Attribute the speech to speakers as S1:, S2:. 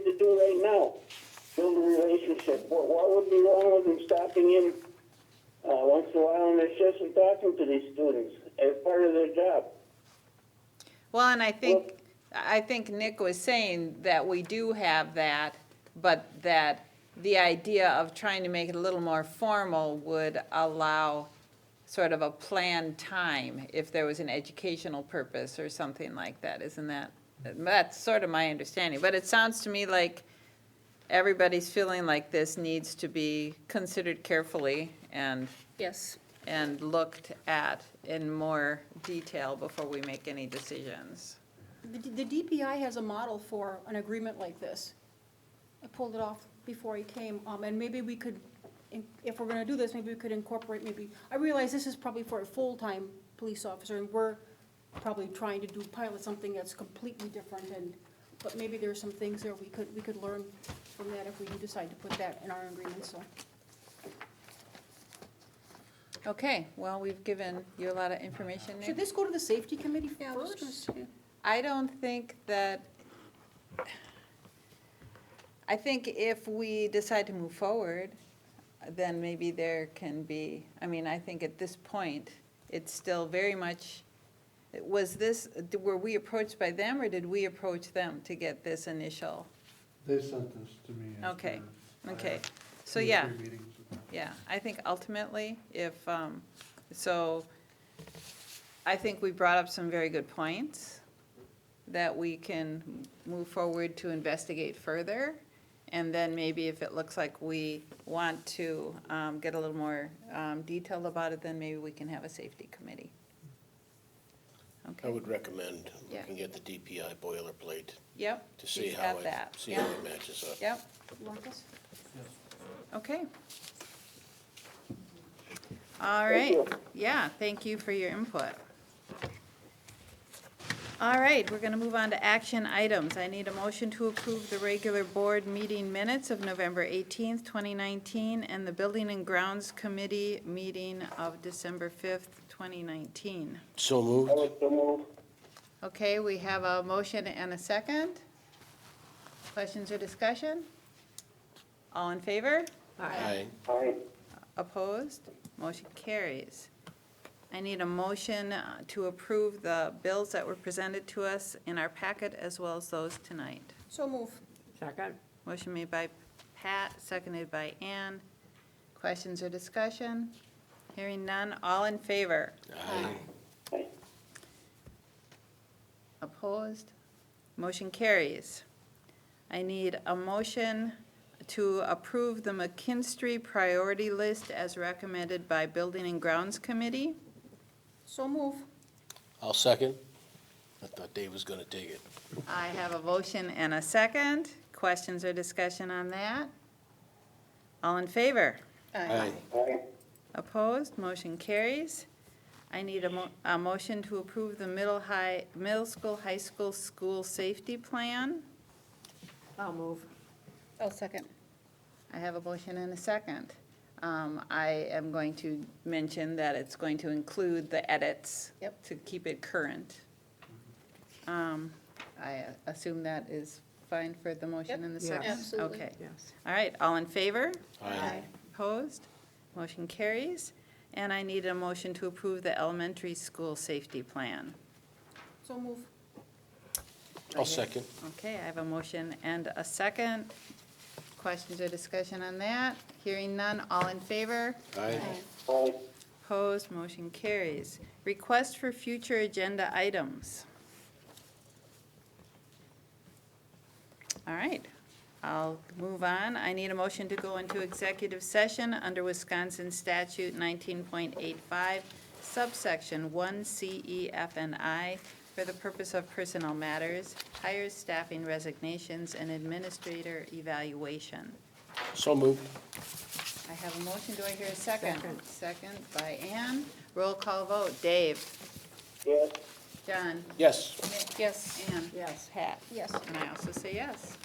S1: do right now, build a relationship. What, what would be wrong with them stopping in, uh, once in a while on their shifts and talking to these students as part of their job?
S2: Well, and I think, I think Nick was saying that we do have that, but that the idea of trying to make it a little more formal would allow sort of a planned time if there was an educational purpose or something like that, isn't that? That's sort of my understanding, but it sounds to me like everybody's feeling like this needs to be considered carefully and
S3: Yes.
S2: and looked at in more detail before we make any decisions.
S3: The the DPI has a model for an agreement like this. I pulled it off before he came, um, and maybe we could, in- if we're gonna do this, maybe we could incorporate, maybe, I realize this is probably for a full-time police officer, and we're probably trying to do pilot something that's completely different, and, but maybe there's some things there we could, we could learn from that if we do decide to put that in our agreement, so.
S2: Okay, well, we've given you a lot of information,
S3: Should
S2: Nick.
S3: this go to the safety committee first?
S2: I don't think that, I think if we decide to move forward, then maybe there can be, I mean, I think at this point, it's still very much, was this, were we approached by them, or did we approach them to get this initial?
S4: They sent this to me. after
S2: Okay,
S4: I
S2: Okay,
S4: had
S2: so
S4: two or
S2: yeah.
S4: three meetings with them.
S2: Yeah, I think ultimately, if, um, so, I think we brought up some very good points that we can move forward to investigate further. And then maybe if it looks like we want to um, get a little more um, detailed about it, then maybe we can have a safety committee.
S5: I
S2: Okay,
S5: would recommend
S2: Yeah.
S5: looking at the DPI boilerplate
S2: yep.
S5: to see
S2: he's
S5: how
S2: got
S5: it,
S2: that.
S5: see
S2: Yep,
S5: how it matches up.
S2: Yep,
S3: Marcus?
S2: okay. All
S1: Thank
S2: right.
S1: you.
S2: Yeah, thank you for your input. All right, we're going to move on to action items. I need a motion to approve the regular board meeting minutes of November 18th, 2019, and the Building and Grounds Committee meeting of December 5th, 2019.
S5: So
S1: I
S5: moved?
S1: would so move.
S2: Okay, we have a motion and a second. Questions or discussion? All in favor?
S5: Aye.
S1: Aye.
S2: Opposed? Motion carries. I need a motion uh, to approve the bills that were presented to us in our packet as well as those tonight.
S3: So move.
S6: Second.
S2: Motion made by Pat, seconded by Ann. Questions or discussion? Hearing none, all in favor?
S5: Aye.
S1: Aye.
S2: Opposed? Motion carries. I need a motion to approve the McKinstry priority list as recommended by Building and Grounds Committee.
S3: So move.
S5: I'll second. I thought Dave was gonna take it.
S2: I have a motion and a second. Questions or discussion on that? All in favor?
S5: Aye.
S1: Aye.
S2: Opposed? Motion carries. I need a mo- a motion to approve the middle high, middle school, high school, school safety plan.
S6: I'll move.
S3: I'll second.
S2: I have a motion and a second. Um, I am going to mention that it's going to include the edits.
S3: Yep.
S2: To keep it current. Um, I assume that is fine for the motion and the
S6: Yep.
S2: second?
S6: Yes.
S3: Absolutely.
S2: Okay.
S6: Yes.
S2: All right, all in favor?
S5: Aye.
S2: Opposed? Motion carries. And I need a motion to approve the elementary school safety plan.
S3: So move.
S5: I'll second.
S2: Okay, I have a motion and a second. Questions or discussion on that? Hearing none, all in favor?
S5: Aye.
S1: Aye.
S2: Opposed, motion carries. Request for future agenda items. All right, I'll move on. I need a motion to go into executive session under Wisconsin statute nineteen point eight five, subsection one C E F and I, for the purpose of personnel matters, hires, staffing resignations, and administrator evaluation.
S5: So moved.
S2: I have a motion, do I hear a second?
S6: Second.
S2: Second by Ann, roll call vote, Dave,
S1: Yes.
S2: John,
S5: Yes.
S2: Yes. Ann.
S6: Yes.
S2: Pat.
S3: Yes.
S2: And I also say yes.